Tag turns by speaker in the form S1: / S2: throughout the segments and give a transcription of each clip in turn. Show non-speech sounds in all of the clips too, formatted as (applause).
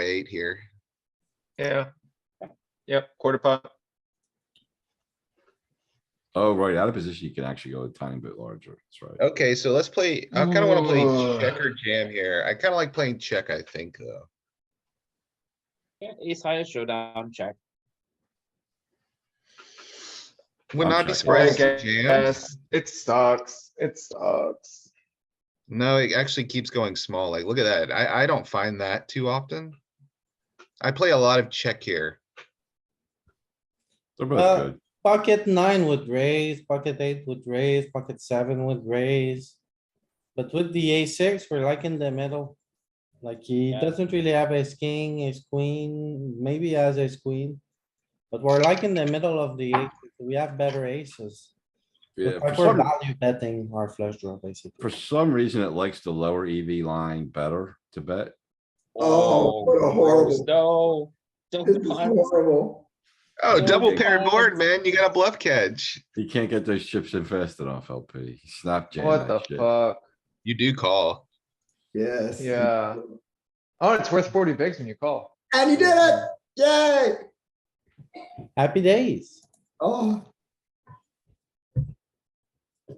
S1: eight here.
S2: Yeah. Yep, quarter pot.
S3: Oh, right, out of position, you can actually go a tiny bit larger, that's right.
S1: Okay, so let's play, I kinda wanna play
S2: Ooh.
S1: check or jam here. I kinda like playing check, I think, though.
S4: Yeah, ace high showdown check.
S1: Would
S3: I'm
S1: not be
S3: checking.
S1: surprised
S2: Yeah,
S1: to jam.
S2: Yes, it sucks. It sucks.
S1: No, it actually keeps going small. Like, look at that. I, I don't find that too often. I play a lot of check here.
S3: They're
S5: Uh,
S3: both good.
S5: Pocket nine would raise, pocket eight would raise, pocket seven would raise. But with the a six, we're like in the middle. Like he
S4: Yeah.
S5: doesn't really have a king, a queen, maybe he has a queen. But we're like in the middle of the, eight. we have better aces.
S3: Yeah, for
S5: We're
S3: some,
S5: value betting our flush draw
S3: for
S5: basically.
S3: some reason, it likes the lower EV line better to bet.
S6: Oh, what a
S4: gross.
S6: horrible-
S4: No.
S6: This
S4: Don't
S6: is
S4: punt.
S6: horrible.
S1: Oh,
S3: Yeah,
S1: double
S3: big
S1: pair
S4: blinds.
S1: board, man. You got a bluff catch.
S3: He can't get those chips in fast enough, LP. Snap jam
S2: What the
S3: that shit.
S2: fuck?
S1: You do call.
S6: Yes.
S2: Yeah. Oh, it's worth forty bigs when you call.
S6: And he did it. Yay.
S5: Happy days.
S6: Oh.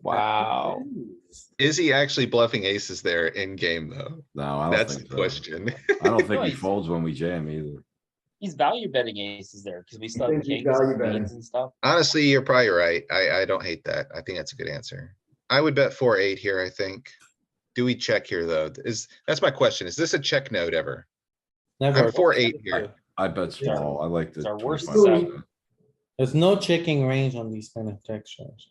S2: Wow.
S1: Is he actually bluffing aces there in game, though?
S3: No, I don't
S1: That's the
S3: think so.
S1: question. (laughs)
S3: I don't think he
S4: Nice.
S3: folds when we jam either.
S4: He's value betting aces there because we still have
S6: think he's
S4: kings
S6: value
S4: and
S6: betting.
S4: queens and stuff.
S1: Honestly, you're probably right. I, I don't hate that. I think that's a good answer. I would bet four, eight here, I think. Do we check here, though? Is, that's my question. Is this a check note ever?
S5: Never.
S1: I'm four, eight here.
S3: I bet
S4: Yeah.
S3: small. I like the.
S4: It's our worst
S3: 25%.
S5: There's no checking range on these kind of check shows.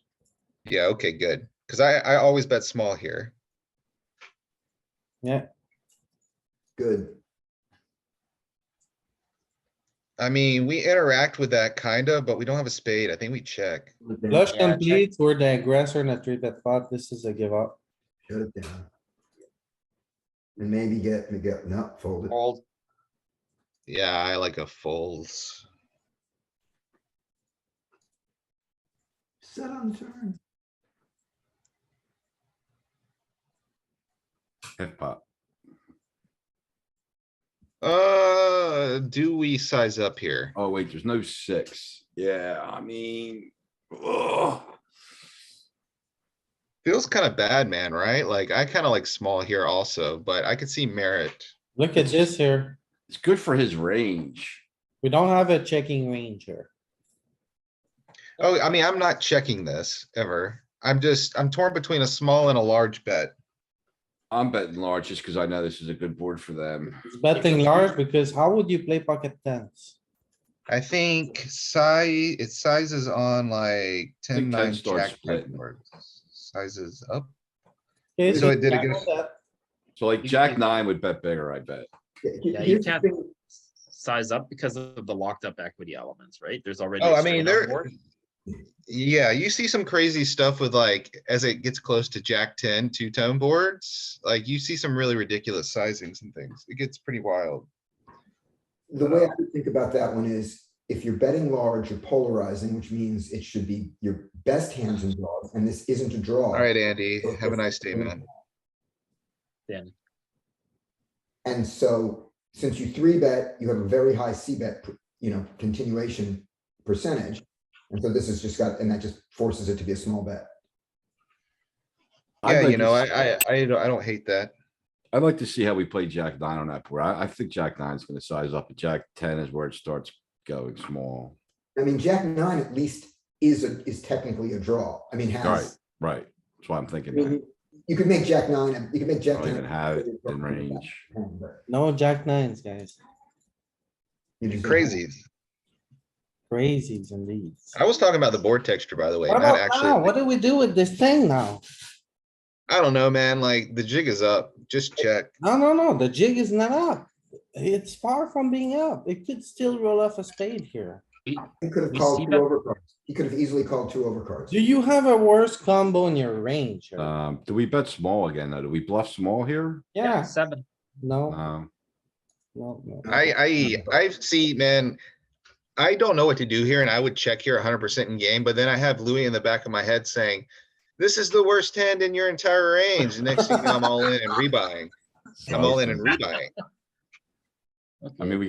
S1: Yeah, okay, good. Cause I, I always bet small here.
S5: Yeah,
S6: Good.
S1: I mean, we interact with that kinda, but we don't have a spade. I think we check.
S5: flush
S4: Yeah, check.
S5: complete, we're the aggressor in a three bet pot. This is a give up.
S6: Shut it down. And maybe get, get, no, fold it.
S4: Fold.
S1: Yeah, I like a folds.
S6: Set on the turn.
S3: Hip hop.
S1: Uh, do we size up here?
S3: Oh, wait, there's no six. Yeah, I mean. ugh.
S1: Feels kinda bad, man, right? Like, I kinda like small here also, but I could see merit.
S5: Look at this here.
S3: It's good for his range.
S5: We don't have a checking range here.
S1: Oh, I mean, I'm not checking this ever. I'm just, I'm torn between a small and a large bet.
S3: I'm betting large just because I know this is a good board for them.
S5: It's betting large because how would you play pocket tens?
S1: I think size, it sizes on like ten,
S3: Think 10
S1: nine,
S3: starts
S1: jack, jack
S3: splitting.
S1: board. Sizes up.
S5: Okay,
S1: So it did
S5: you
S1: it
S5: tackle that.
S3: So like
S4: You
S3: jack
S4: can-
S3: nine would bet bigger, I bet.
S4: Yeah, you can't size up because of the locked up equity elements, right? There's already.
S1: Oh,
S4: a
S1: I mean,
S4: straight on
S1: there-
S4: board.
S1: Yeah, you see some crazy stuff with like, as it gets close to jack ten, two tone boards, like you see some really ridiculous sizings and things. It gets pretty wild.
S6: The way I would think about that one is if you're betting large, you're polarizing, which means it should be your best hands and draws, and this isn't a draw.
S1: Alright, Andy, have a nice day, man.
S6: And so since you three bet, you have a very high C bet, per- you know, continuation percentage. And so this has just got, and that just forces it to be a small bet.
S3: I'd
S1: Yeah,
S3: like
S1: you
S3: to
S1: know, I,
S3: see-
S1: I, I don't- I don't hate that.
S3: I'd like to see how we play jack nine on that board. I, I think jack nine's gonna size up, but jack ten is where it starts going small.
S6: I mean, Jack nine at least is, a is technically a draw. I mean, has.
S3: Right, that's why I'm
S6: I
S3: thinking that.
S6: mean, You could make Jack nine, and- you could make
S3: I
S6: Jack.
S3: don't even
S6: nine-
S3: have it in range.
S6: but
S5: No jack nines, guys.
S6: you just-
S1: Crazy.
S5: Crazies indeed.
S1: I was talking about the board texture, by the way,
S5: What
S1: not
S5: about now?
S1: actually.
S5: What do we do with this thing now?
S1: I don't know, man, like the jig is up. Just check.
S5: No, no, no, the jig is not up. It's far from being up. It could still roll off a spade here.
S6: He could have
S4: We
S6: called
S4: see
S6: two
S4: that-
S6: overcards. He could have easily called two overcards.
S5: Do you have a worse combo in your range? here?
S3: Um, do we bet small again? though? Do we bluff small here?
S5: Yeah,
S4: Seven.
S5: no,
S3: Um,
S5: no, no.
S1: I, I, I see, man. I don't know what to do here and I would check here hundred percent in game, but then I have Louis in the back of my head saying, this is the worst hand in your entire range. The Next thing you know, I'm all in and rebuying. I'm all in and rebuying.
S3: I mean, we